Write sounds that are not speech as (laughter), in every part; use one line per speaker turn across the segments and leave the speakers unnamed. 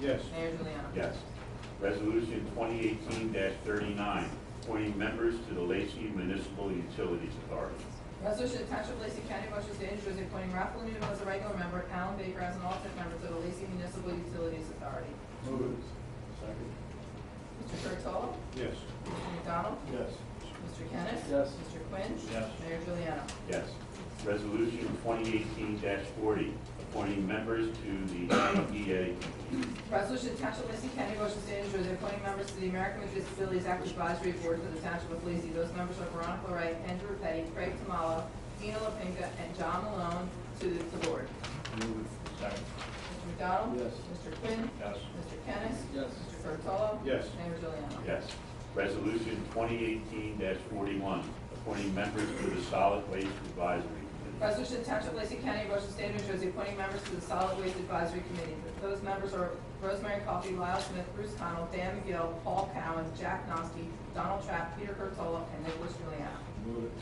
Yes.
Mayor Juliana.
Yes. Resolution 2018-39, appointing members to the Lacey Municipal Utilities Authority.
Resolution to Township of Lacey County, Ocean State, New Jersey, appointing Ralph Lino as a regular member, Alan Baker as an alternate member to the Lacey Municipal Utilities Authority.
Move it. Second.
Mr. Curatolo?
Yes.
Mr. McDonald?
Yes.
Mr. Kennis?
Yes.
Mr. Quinn?
Yes.
Mayor Juliana.
Yes. Resolution 2018-40, appointing members to the IDA.
Resolution to Township of Lacey County, Ocean State, New Jersey, appointing members to the American with Disabilities Act Advisory Board for the Township of Lacey. Those members are Veronica Wright, Andrew Petty, Craig Tamalo, Dina LaPinka, and John Malone to the board.
Move it. Second.
Mr. McDonald?
Yes.
Mr. Quinn?
Yes.
Mr. Kennis?
Yes.
Mr. Curatolo?
Yes.
Mayor Juliana.
Yes. Resolution 2018-41, appointing members to the Solid Waste Advisory Committee.
Resolution to Township of Lacey County, Ocean State, New Jersey, appointing members to the Solid Waste Advisory Committee. Those members are Rosemary Coffey, Lyle Smith, Bruce Connell, Dan McGill, Paul Cowan, Jack Noski, Donald Trapp, Peter Curatolo, and Nicholas Juliana.
Move it.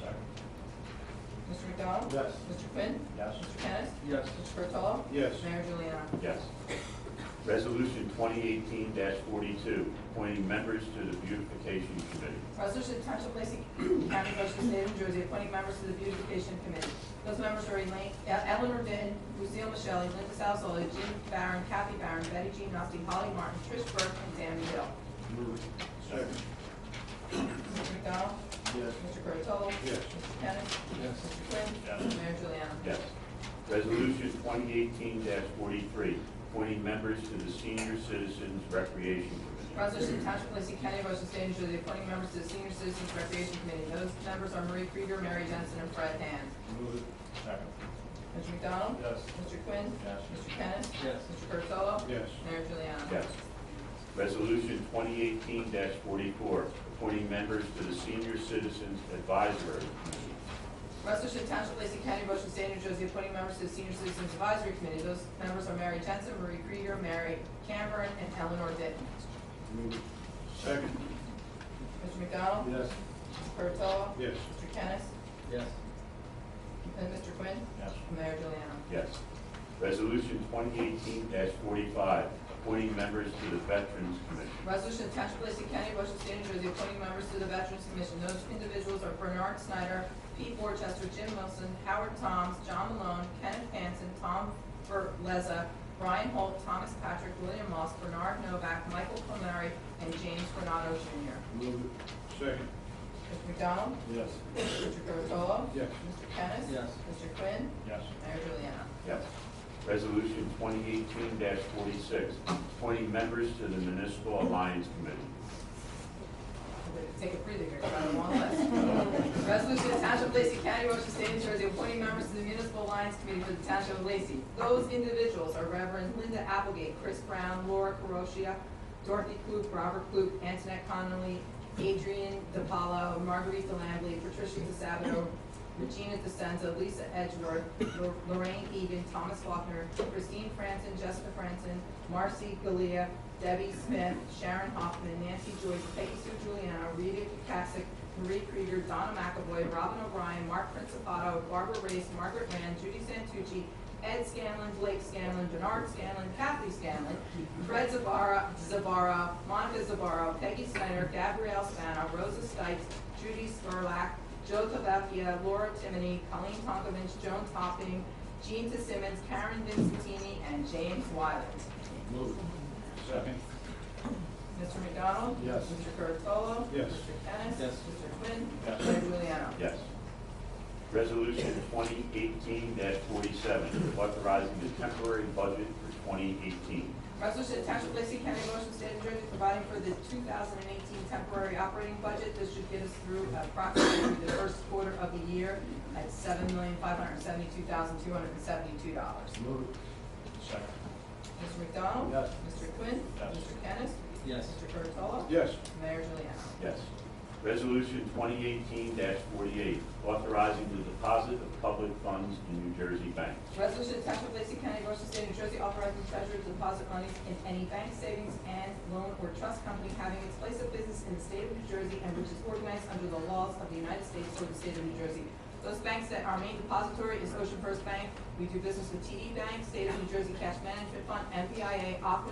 Second.
Mr. McDonald?
Yes.
Mr. Quinn?
Yes.
Mr. Kennis?
Yes.
Mr. Curatolo?
Yes.
Mayor Juliana.
Yes. Resolution 2018-42, appointing members to the Beautification Committee.
Resolution to Township of Lacey (clears throat) County, Ocean State, New Jersey, appointing members to the beautification committee. Those members are Elaine, uh, Eleanor Vinn, Lucille Michele, Linda Salzola, Jim Barron, Kathy Barron, Betty Jean Rusty, Holly Martin, Trish Burke, and Tammy Hill.
Move it. Second.
Mr. McDonald?
Yes.
Mr. Curatolo?
Yes.
Mr. Kennis?
Yes.
Mr. Quinn?
Yes.
Mayor Juliana.
Yes. Resolution 2018-43, appointing members to the Senior Citizens Recreation Committee.
Resolution to Township of Lacey County, Ocean State, New Jersey, appointing members to the senior citizens recreation committee. Those members are Marie Krieger, Mary Jensen, and Fred Hand.
Move it. Second.
Mr. McDonald?
Yes.
Mr. Quinn?
Yes.
Mr. Kennis?
Yes.
Mr. Curatolo?
Yes.
Mayor Juliana.
Yes. Resolution 2018-44, appointing members to the Senior Citizens Advisory Committee.
Resolution to Township of Lacey County, Ocean State, New Jersey, appointing members to the Senior Citizens Advisory Committee. Those members are Mary Jensen, Marie Krieger, Mary Cameron, and Eleanor Denton.
Move it. Second.
Mr. McDonald?
Yes.
Mr. Curatolo?
Yes.
Mr. Kennis?
Yes.
And Mr. Quinn?
Yes.
And Mayor Juliana.
Yes. Resolution 2018-45, appointing members to the Veterans Committee.
Resolution to Township of Lacey County, Ocean State, New Jersey, appointing members to the Veterans Commission. Those individuals are Bernard Snyder, Pete Borchester, Jim Wilson, Howard Toms, John Malone, Kenneth Hansen, Tom Berleza, Brian Holt, Thomas Patrick, William Moss, Bernard Novak, Michael Palmieri, and James Granado Jr.
Move it. Second.
Mr. McDonald?
Yes.
Mr. Curatolo?
Yes.
Mr. Kennis?
Yes.
Mr. Quinn?
Yes.
Mayor Juliana.
Yes. Resolution 2018-46, appointing members to the Municipal Alliance Committee.
Take a breather here, it's on a long list. Resolution to Township of Lacey County, Ocean State, New Jersey, appointing members to the Municipal Alliance Committee for the Township of Lacey. Those individuals are Reverend Linda Applegate, Chris Brown, Laura Carosia, Dorothy Klug, Robert Klug, Antoinette Connolly, Adrian DiPaolo, Margarita Langley, Patricia DeSabato, Regina DeSenza, Lisa Edgeworth, Lor- Lorraine Egan, Thomas Faulkner, Christine Franson, Jessica Franson, Marcy Galea, Debbie Smith, Sharon Hoffman, Nancy Joyce, Peggy Sue Giuliano, Rita Kukasik, Marie Krieger, Donna McAvoy, Robin O'Brien, Mark Principato, Barbara Race, Margaret Rand, Judy Santucci, Ed Scanlon, Blake Scanlon, Bernard Scanlon, Kathy Scanlon, Fred Zabara, Zabara, Monica Zabara, Peggy Snyder, Gabrielle Spano, Rosa Stites, Judy Spurlock, Joe Tavapia, Laura Timoney, Colleen Tonkovich, Joan Topping, Jean Simmons, Karen Vincentini, and James Wiley.
Move it. Second.
Mr. McDonald?
Yes.
Mr. Curatolo?
Yes.
Mr. Kennis?
Yes.
Mr. Quinn?
Yes.
Mayor Juliana.
Yes. Resolution 2018-47, authorizing the temporary budget for 2018.
Resolution to Township of Lacey County, Ocean State, New Jersey, providing for the 2018 temporary operating budget. This should get us through approximately the first quarter of the year at $7,572,272.
Move it. Second.
Mr. McDonald?
Yes.
Mr. Quinn?
Yes.
Mr. Kennis?
Yes,
Mr. Curatolo?
Yes.
Mayor Juliana.
Yes. Resolution 2018-48, authorizing the deposit of public funds in New Jersey banks.
Resolution to Township of Lacey County, Ocean State, New Jersey, authorizing the treasurer to deposit monies in any bank savings and loan or trust company having its place of business in the state of New Jersey and which is organized under the laws of the United States or the state of New Jersey. Those banks that our main depository E is Ocean First Bank. We do business with TD Bank, State of New Jersey Cash Management Fund, MBIA, Aqua